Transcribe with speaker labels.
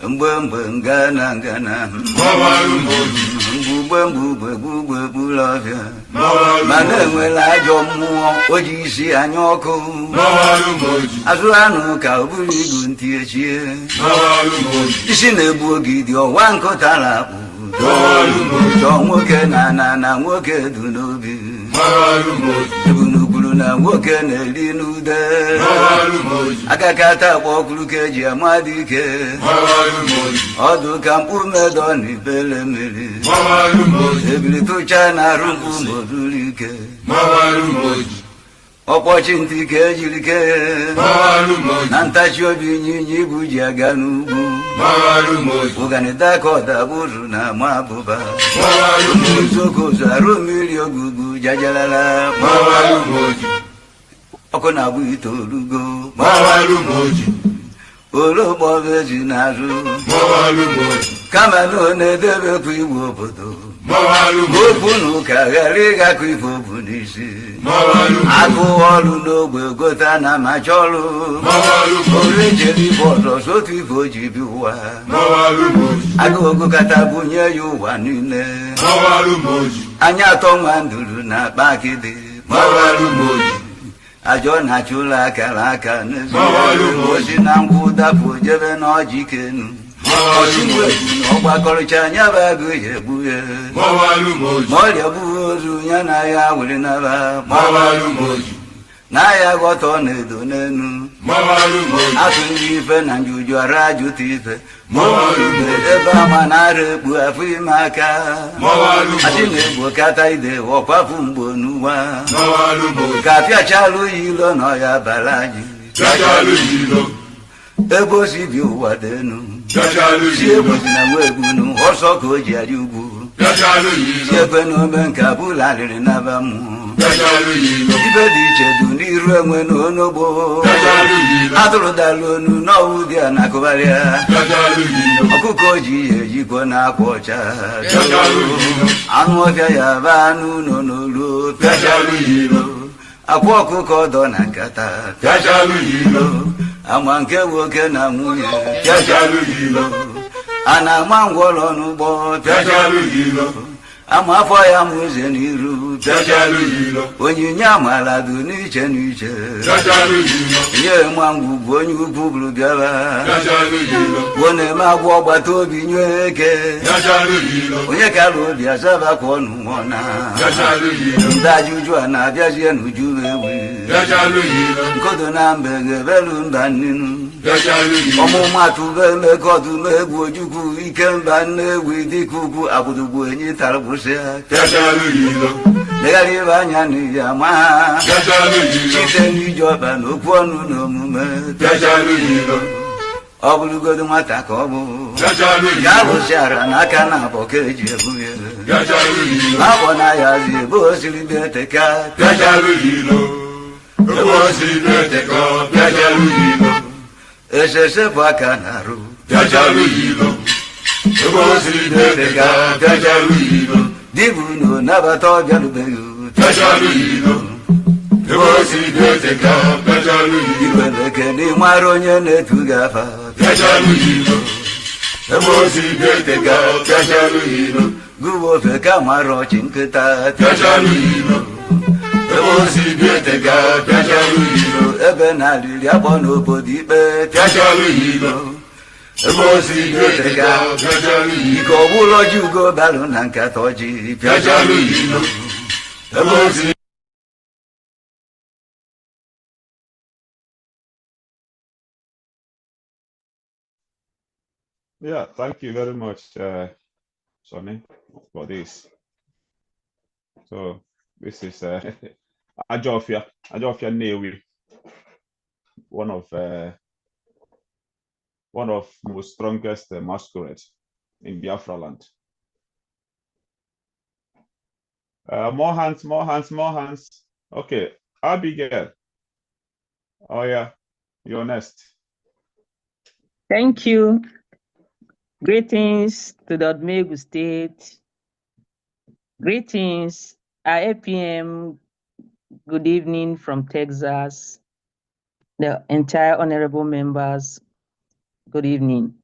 Speaker 1: mgbemgbe ngana ngana
Speaker 2: Mawalu mboji,
Speaker 1: mgbugbe mgbugbe gbugbe gbula ọbịa
Speaker 2: mawalu
Speaker 1: mana
Speaker 2: mboji,
Speaker 1: enwela ajọ mmụọ o ji isi anya ọkụ
Speaker 2: mawalu mboji,
Speaker 1: azụ anụ ka ọ bụrụ igu ntị echie
Speaker 2: mawalu mboji,
Speaker 1: isi na-egbu oge dị ọwa nkụta na-akpụ
Speaker 2: mawalu mboji,
Speaker 1: chọọ nwoke na na na nwoke du n'obi
Speaker 2: mawalu mboji,
Speaker 1: ebunugwuru na nwoke na-eri n'ude
Speaker 2: mawalu mboji,
Speaker 1: akakata akpa ọkụrụ ka eji ama dike
Speaker 2: mawalu mboji,
Speaker 1: ọdụ ka mkpụ medọ na ibele mmiri
Speaker 2: mawalu mboji,
Speaker 1: ebili tụcha na arụ mkpụ moduru ike
Speaker 2: mawalu mboji,
Speaker 1: ọkpọchi ntị ka ejiri kee
Speaker 2: mawalu mboji,
Speaker 1: na ntachi obi ịnyịnya ibu ji aga n'ugwu
Speaker 2: mawalu mboji,
Speaker 1: ụganịta ka ọdabụrụ na ama abụba
Speaker 2: mawalu mboji,
Speaker 1: uzokozu arụ mmiri ogugbu jajalala
Speaker 2: mawalu mboji,
Speaker 1: ọkụ na-abụ itoolugo
Speaker 2: mawalu mboji,
Speaker 1: ologboezi n'azụ
Speaker 2: mawalu mboji,
Speaker 1: kama na ọ na-edebekwa iwu obodo
Speaker 2: mawalu mboji,
Speaker 1: okwu na ụka ghara ịgakọ ife obu n'isi
Speaker 2: mawalu mboji,
Speaker 1: agụ ọrụ n'ogbe gote na amacha ọrụ
Speaker 2: mawalu mboji,
Speaker 1: orejere ibe ọzọ sotu ife o ji bi ụwa
Speaker 2: mawalu mboji,
Speaker 1: agụogụ kata bunye ya ụwa niile
Speaker 2: mawalu mboji,
Speaker 1: anya atọ nwa nduru na akpa akịdị
Speaker 2: mawalu mboji,
Speaker 1: ajọ na-achụ ụlọ akara aka
Speaker 2: Mawalu mboji.
Speaker 1: n'ezi na nkwụ dapụ jebe n'ọjị kenu
Speaker 2: mawalu mboji.
Speaker 1: ọgbakọrịcha anya bụ agụ ya egbu ya
Speaker 2: Mawalu mboji,
Speaker 1: ma ọrịa bụghị ozu ya na ya were naba
Speaker 2: mawalu mboji,
Speaker 1: na ya ghọta ọ na-edo n'enu
Speaker 2: mawalu mboji,
Speaker 1: atụ ndị ife na njuju ara ajụta ife
Speaker 2: Mawalu mboji.
Speaker 1: ebe ama na-ara ekpu afọ ime aka
Speaker 2: Mawalu mboji.
Speaker 1: achị na-egbo kata ide ọkwafụ mgbo n'ụwa
Speaker 2: mawalu mboji,
Speaker 1: ka apịachalụ ya ilo na ọya bara anyị
Speaker 2: jajalu yilo,
Speaker 1: ebe o si bi ụwa dị enu
Speaker 2: jajalu
Speaker 1: si
Speaker 2: yilo,
Speaker 1: egwuzi na nwa egwunu ọsọ ka o ji arị ugwu
Speaker 2: jajalu
Speaker 1: si
Speaker 2: yilo,
Speaker 1: ekwe n'ome nke abụla arịrị naba mmụọ
Speaker 2: jajalu yilo,
Speaker 1: ibe dị iche dị n'iru enwe na onogbo
Speaker 2: jajalu yilo,
Speaker 1: atụrụ dara onu n'ọwụ dị a na-akụgharịa
Speaker 2: jajalu yilo,
Speaker 1: ọkụkọ ji ya ejikwa na-akwa ọcha
Speaker 2: jajalu yilo,
Speaker 1: anụ ọbịa ya ba anụ ụlọ n'olu
Speaker 2: jajalu yilo,
Speaker 1: akwa ọkụkọ dọ na nkata
Speaker 2: jajalu yilo,
Speaker 1: ama nke nwoke na nwunye
Speaker 2: jajalu yilo,
Speaker 1: a na-ama ngwọrọ n'ụgbọ
Speaker 2: jajalu yilo,
Speaker 1: ama afọ ya ma ụzọ n'iru
Speaker 2: jajalu yilo,
Speaker 1: onyinye amaala dị n'iche n'iche
Speaker 2: jajalu yilo,
Speaker 1: nye ma ngwu bụ onye ukwu bụrụ bịara
Speaker 2: jajalu yilo,
Speaker 1: ọ na-eme agwọ ọgbata obi nye eke
Speaker 2: jajalu yilo,
Speaker 1: onye kara obi azabakwa ọnụ nwọna
Speaker 2: jajalu yilo,
Speaker 1: ndị ajụjụ a na-abịazie n'uju ewi
Speaker 2: jajalu yilo,
Speaker 1: nkodo na mbe ga-ebelu mba nnenu
Speaker 2: jajalu yilo,
Speaker 1: ọmụmatụ be emeka ọdụm egwu ojukwu ike mba nne egwu dịka ukwu agbụdogbu enyi tara gbụsịa
Speaker 2: jajalu yilo,
Speaker 1: legharị ibe anya n'iyi ama ha
Speaker 2: jajalu yilo.
Speaker 1: site n'iji ọba n'okwu ọnụ na omume
Speaker 2: Jajalu yilo,
Speaker 1: ọ bụrụgodo nwata ka ọ bụ
Speaker 2: jajalu
Speaker 1: ya
Speaker 2: yilo,
Speaker 1: rụsịara n'aka na abọ ka eji ebu ya
Speaker 2: jajalu yilo,
Speaker 1: abọ na ya zi ebe o siri deteka
Speaker 2: jajalu yilo. Ebe o si na-eteka, jajalu yilo,
Speaker 1: esese bụ aka na-arụ
Speaker 2: jajalu yilo. Ebe o si na-eteka, jajalu yilo,
Speaker 1: dibu na onabata ọbịarubeghị
Speaker 2: jajalu yilo. Ebe o si na-eteka, jajalu yilo,
Speaker 1: igweleke n'ịmara onye na-etu gị afa
Speaker 2: jajalu yilo. Ebe o si na-eteka, jajalu yilo,
Speaker 1: gụwa ofe ka mara ọchị nkịta
Speaker 2: jajalu yilo. Ebe o si na-eteka, jajalu yilo.
Speaker 1: ebe na-alịrị akpọ n'obodo ikpe
Speaker 2: Jajalu yilo, ebe o si na-eteka, jajalu yilo.
Speaker 1: ike ọbụla ọjị ugo balụ na nkata ọjị
Speaker 2: Jajalu yilo, ebe o si
Speaker 3: Yeah, thank you very much, uh, Sonny, for this. So this is uh, Ajofia, Ajofia Newi, one of uh, one of most strongest uh, masquerade in Biafra land. Uh, more hands, more hands, more hands. Okay, Abigail. Oh yeah, you're next.
Speaker 4: Thank you. Greetings to the Odumegu State. Greetings, IAPM. Good evening from Texas. The entire honorable members, good evening.